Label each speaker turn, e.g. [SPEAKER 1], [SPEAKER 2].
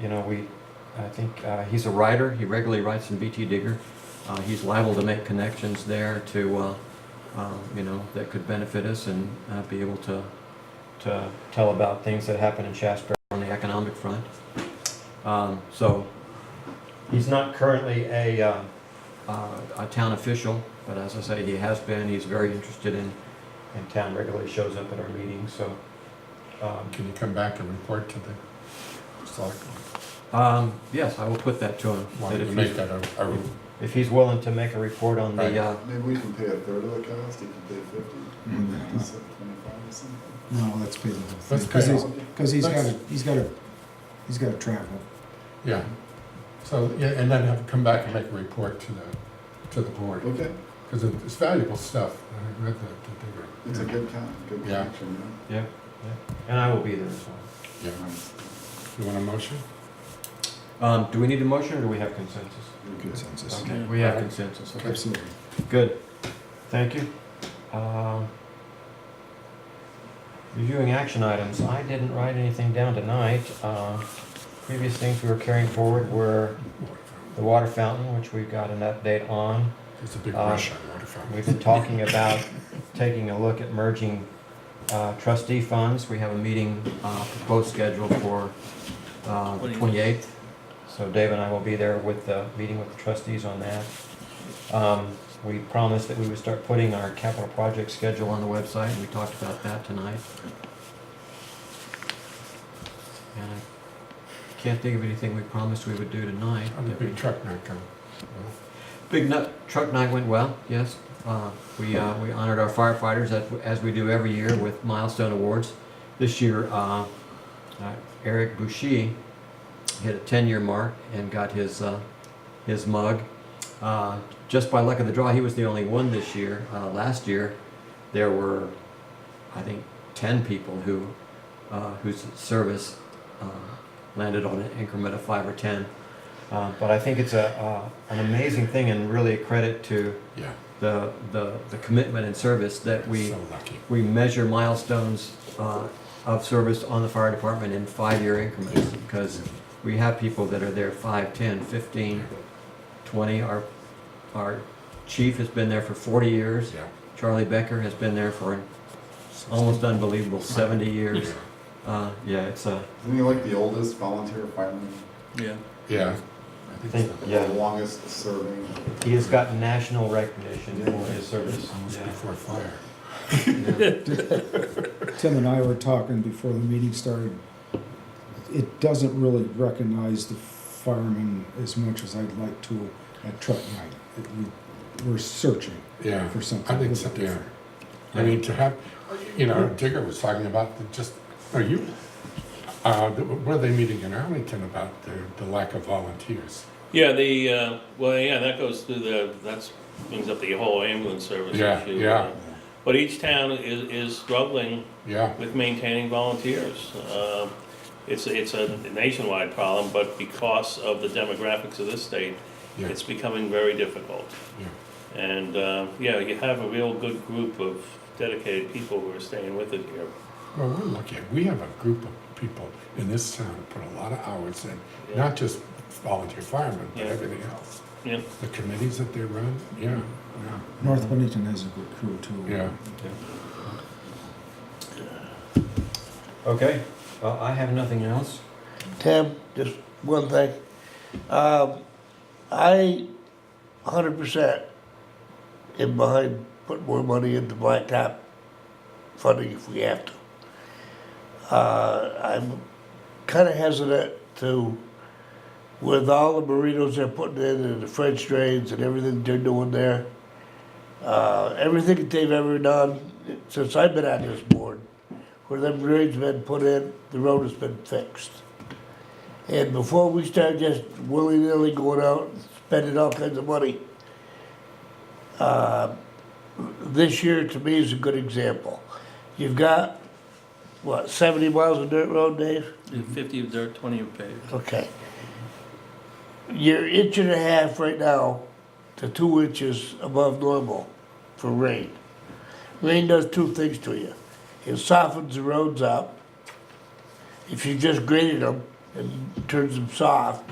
[SPEAKER 1] you know, we, I think, uh, he's a writer, he regularly writes in BT Digger. Uh, he's liable to make connections there to, uh, um, you know, that could benefit us and, uh, be able to, to tell about things that happen in Shasberry on the economic front. Um, so, he's not currently a, uh, uh, a town official, but as I say, he has been, he's very interested in, in town, regularly shows up at our meetings, so. um,
[SPEAKER 2] Can you come back and report to the selectmen?
[SPEAKER 1] Um, yes, I will put that to him. that
[SPEAKER 2] Wanted to
[SPEAKER 1] if Mm-hmm.
[SPEAKER 2] make
[SPEAKER 1] he's-
[SPEAKER 2] that a, a,
[SPEAKER 1] If he's willing to make a report on
[SPEAKER 2] Right.
[SPEAKER 1] the, uh,
[SPEAKER 3] Maybe we can pay a third of the cost, you can pay fifty,
[SPEAKER 2] Mm.
[SPEAKER 3] fifty-seven, twenty-five or something.
[SPEAKER 4] No, let's pay the whole
[SPEAKER 2] Let's
[SPEAKER 4] thing,
[SPEAKER 2] pay
[SPEAKER 4] because he's,
[SPEAKER 2] all.
[SPEAKER 4] because he's
[SPEAKER 2] Let's-
[SPEAKER 4] gotta, he's gotta, he's gotta travel.
[SPEAKER 2] yeah. So, yeah, and then have, come back and make a report to the, to the board,
[SPEAKER 3] Okay,
[SPEAKER 2] because it's valuable stuff. I read the, the
[SPEAKER 3] it's a
[SPEAKER 2] digger.
[SPEAKER 3] good con, good
[SPEAKER 2] Yeah.
[SPEAKER 3] connection,
[SPEAKER 1] yeah, yeah, and I will be there as well.
[SPEAKER 2] Yeah.
[SPEAKER 3] yeah.
[SPEAKER 2] You want a motion?
[SPEAKER 1] Um, do we need a motion or do we have consensus?
[SPEAKER 3] Okay.
[SPEAKER 4] Consensus,
[SPEAKER 1] Okay, we have consensus, okay.
[SPEAKER 4] absolutely.
[SPEAKER 1] Good, thank you. Um, Reviewing action items, I didn't write anything down tonight. Uh, Previous things we were carrying forward were the water fountain, which we got an update on.
[SPEAKER 2] It's a big
[SPEAKER 1] Uh,
[SPEAKER 2] rush on water fountain.
[SPEAKER 1] We've been talking about taking a look at merging uh, trustee funds. We have a meeting uh, proposed scheduled for uh, the 28th. So Dave and I will be there with the, meeting with the trustees on that. Um, We promised that we would start putting our capital project schedule on the website, and we talked about that tonight. And I can't think of anything we promised we would do tonight.
[SPEAKER 2] On the
[SPEAKER 1] that we-
[SPEAKER 2] big truck not going.
[SPEAKER 1] Big nut, truck night went well, yes. Uh, We, uh, we honored our firefighters as, as we do every year with milestone awards. This year, uh, uh, Eric Bouchy hit a ten-year mark and got his, uh, his mug. Uh, Just by luck of the draw, he was the only one this year. Uh, Last year, there were, I think, ten people who, uh, whose service uh, landed on an increment of five or ten. Uh, But I think it's a, uh, an amazing thing and really a credit to
[SPEAKER 2] Yeah,
[SPEAKER 1] the, the, the commitment and service that we,
[SPEAKER 2] so lucky.
[SPEAKER 1] we measure milestones uh, of service on the fire department in five-year increments. Because we have people that are there five, 10, 15, 20. Our, our chief has been there for 40 years.
[SPEAKER 2] Yeah.
[SPEAKER 1] Charlie Becker has been there for an almost unbelievable 70 years. Uh, Yeah, it's a,
[SPEAKER 3] Isn't he like the oldest volunteer fireman,
[SPEAKER 5] Yeah.
[SPEAKER 2] Yeah. I
[SPEAKER 1] I
[SPEAKER 2] think
[SPEAKER 1] think,
[SPEAKER 2] so.
[SPEAKER 3] the
[SPEAKER 1] yeah,
[SPEAKER 3] longest serving?
[SPEAKER 1] he has gotten national recognition for his service.
[SPEAKER 2] Almost
[SPEAKER 1] Yeah.
[SPEAKER 2] before fire.
[SPEAKER 1] Yeah.
[SPEAKER 4] Tim and I were talking before the meeting started. It doesn't really recognize the firemen as much as I'd like to at truck night. It- we- We're searching
[SPEAKER 2] Yeah.
[SPEAKER 4] for something.
[SPEAKER 2] I think so,
[SPEAKER 4] Looking
[SPEAKER 2] yeah.
[SPEAKER 4] for-
[SPEAKER 2] I mean, to have, you know, Digger was talking about the just, are you, uh, the- what are they meeting in Arlington about the, the lack of volunteers?
[SPEAKER 5] Yeah, the, uh, well, yeah, that goes through the, that's, brings up the whole ambulance service
[SPEAKER 2] Yeah,
[SPEAKER 5] issue.
[SPEAKER 2] yeah.
[SPEAKER 5] uh, But each town is, is struggling
[SPEAKER 2] Yeah,
[SPEAKER 5] with maintaining volunteers. Um, It's, it's a nationwide problem, but because of the demographics of this state,
[SPEAKER 2] Yeah.
[SPEAKER 5] it's becoming very difficult.
[SPEAKER 2] yeah,
[SPEAKER 5] And, uh, yeah, you have a real good group of dedicated people who are staying with it here.
[SPEAKER 2] well, we're lucky, we have a group of people in this town that put a lot of hours in, not just volunteer firemen, but
[SPEAKER 5] Yeah.
[SPEAKER 2] everything else.
[SPEAKER 5] Yeah.
[SPEAKER 2] The committees that they run, yeah, yeah,
[SPEAKER 4] North Bennington has a good crew too.
[SPEAKER 2] yeah.
[SPEAKER 1] Okay, well, I have nothing else.
[SPEAKER 6] Tim, just one thing. Um, I, hundred percent, am behind putting more money into blacktop funding if we have to. Uh, I'm kinda hesitant to, with all the burritos they're putting in and the French drains and everything they're doing there, uh, everything that they've ever done since I've been on this board, where them drains been put in, the road has been fixed. And before we start just willy-nilly going out and spending all kinds of money, uh, this year to me is a good example. You've got, what, 70 miles of dirt road, Dave?
[SPEAKER 5] Fifty of dirt, twenty of paved.
[SPEAKER 6] Okay. You're inch and a half right now to two inches above normal for rain. Rain does two things to you. It softens the roads up. If you just graded them, and turns them soft,